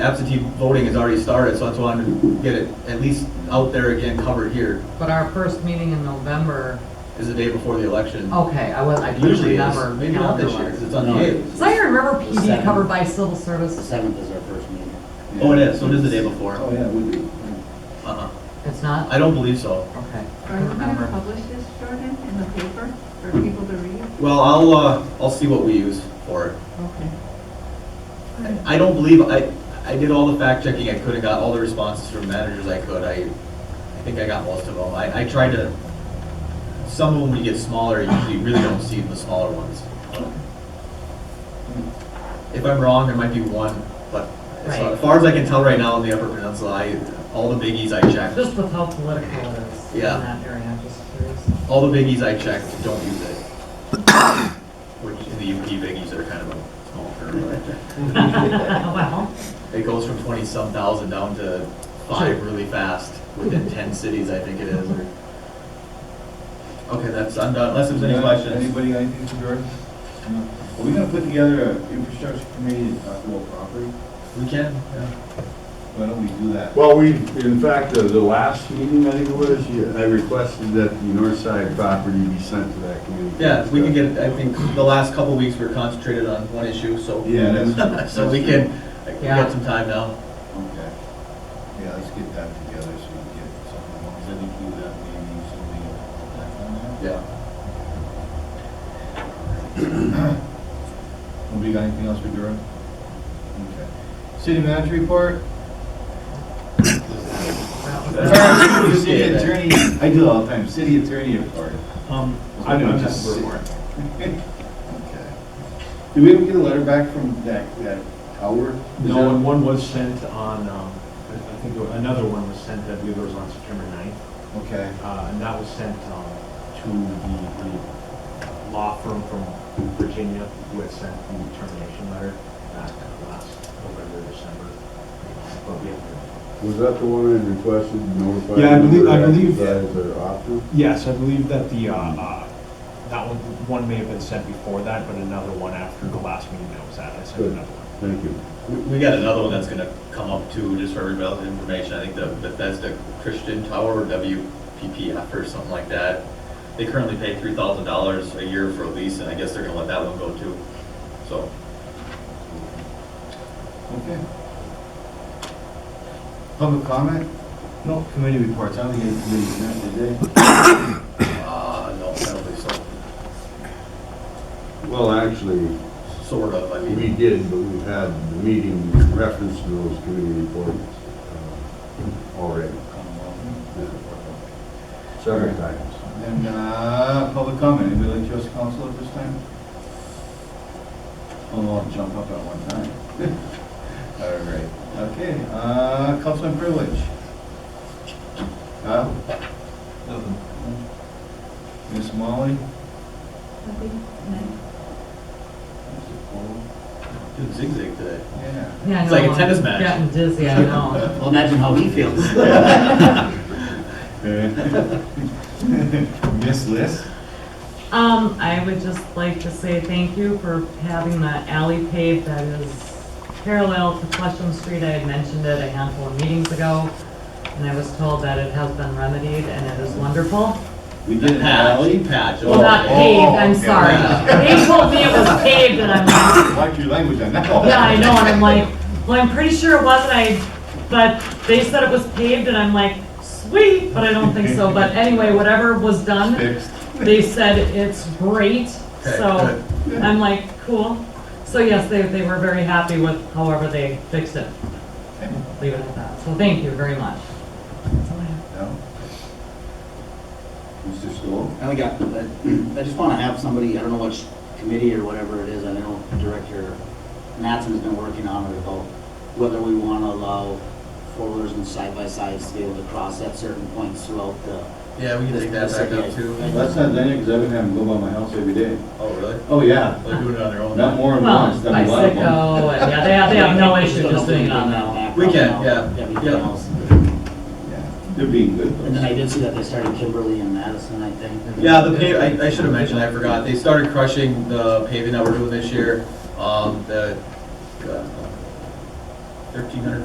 Absentee voting has already started, so that's why I wanted to get it at least out there again, covered here, But our first meeting in November, is the day before the election. okay, I was, I couldn't Usually it Oh, remember. is, maybe not this year, calendar-wise. 'cause it's on the eighth. So I remember PD Seven. covered by civil The service. seventh is our first meeting. Oh, it is, so it is the day before. Oh, yeah, it would be. Uh-uh. It's not? I don't believe so. Okay. I Are you going to remember. publish this, Jordan, in the paper for people to read? Well, I'll, uh, I'll see what we use for it. Okay. I don't believe, I, I did all the fact checking I could, and got all the responses from managers I could, I, I think I got most of them. I, I tried to, some of them, when you get smaller, you usually really don't see the smaller ones. If I'm wrong, there might be one, but as far- Right. as far as I can tell right now in the Upper Peninsula, I, all the biggies I checked, Just with how political it is in Yeah. that area, I'm just curious. all the biggies I checked don't use it. Which in the UP biggies are kind of a small term, but. Well, It goes from twenty some thousand down to five really fast within ten cities, I think it is. or- Okay, that's, I'm done, unless there's any Yeah, questions. Anybody got anything for Jordan? No. Are we gonna put together an infrastructure committee to talk about property? We can, yeah. Why don't we do that? Well, we, in fact, uh, the last meeting, I think it was, you- I requested that the north side property be sent to that committee. yeah, we can get, I think, the last couple weeks we were concentrated on one issue, so. Yeah, that's- So we can, we Yeah. got some time now. Okay. Yeah, let's get that together so we get something. along. 'Cause I think you have maybe something back on Yeah. that. Nobody got anything else for Jordan? Okay. City manager report? Sorry, City attorney, I do it all the time, city attorney report. Um, I know, I'm just- just, I Okay. Did we ever get a letter back from that, that Howard? no, and one was sent on, um, I I think there- another one was sent, I believe it was on September 9th, Okay, uh, and that was sent, um, to the, the law firm from Virginia who had sent the termination letter back last November, December. But we haven't- Was that the one that requested notified? Yeah, I believe- I believe- That is their option? Yes, I believe that the, uh, uh, that one, one may have been sent before that, but another one after the last meeting that was at, I sent Good. another one. Thank you. We, we got another one that's gonna come up too, just for everybody's information, I think the Bethesda Christian Tower, WPPF or something like that. They currently pay three thousand dollars a year for a lease, and I guess they're gonna let that one go too, so. okay. Public comment? No committee reports, I don't think any committees met today. Uh, no, I don't think so, Well, actually, sort of, I we mean, did, but we had the meeting in reference to those committee reports uh, already, several times. And, uh, public comment, anybody like to address council at this time? Oh, I'll jump up at one time. All right, okay, uh, councilman privilege. Kyle? Nothing. Miss Molly? Nothing? No. doing zigzag today. Yeah. Yeah, I It's like a know, I'm tennis match. Getting dizzy, I know. Well, imagine how he feels. Miss Liz? Um, I would just like to say thank you for having that alley paved that is parallel to Flushing Street. I had mentioned it a handful of meetings ago, and I was told that it has been remedied, and it is wonderful. We did an Patch, alley. patch. Well, not Oh, paved, oh, I'm okay. sorry. They told me it was paved, and I'm like, Watch your language on that one. Yeah, I know, and I'm like, well, I'm pretty sure it wasn't, I, but they said it was paved, and I'm like, sweet, but I don't think so, but anyway, whatever was done, Fixed. they said it's great, Okay, so, I'm like, cool. So yes, they, they were very happy with however they fixed it, leave it at that, so thank you very much. That's all I have. No? Mr. Stoll? I think I, I- I just want to have somebody, I don't know which committee or whatever it is, I know Director Matson's been working on it about whether we want to allow four-wheelers and side-by-sides to be able to cross at certain points throughout the, Yeah, we can take that back up too. That's not done yet, because I've been having to go by my house every day. Oh, really? Oh, yeah. They're doing it on their own. Not now. more than Well, once, done a lot of them. Bicycle, and yeah, they have, they have no issue just doing it on their own. that. We can, yeah, Everything yeah. else. Yeah, They're being good. And then I did see that they started Kimberly and Madison, I think. Yeah, the pave, I, I should have mentioned, I forgot, they started crushing the paving that we're doing this year. Um, the, uh, thirteen hundred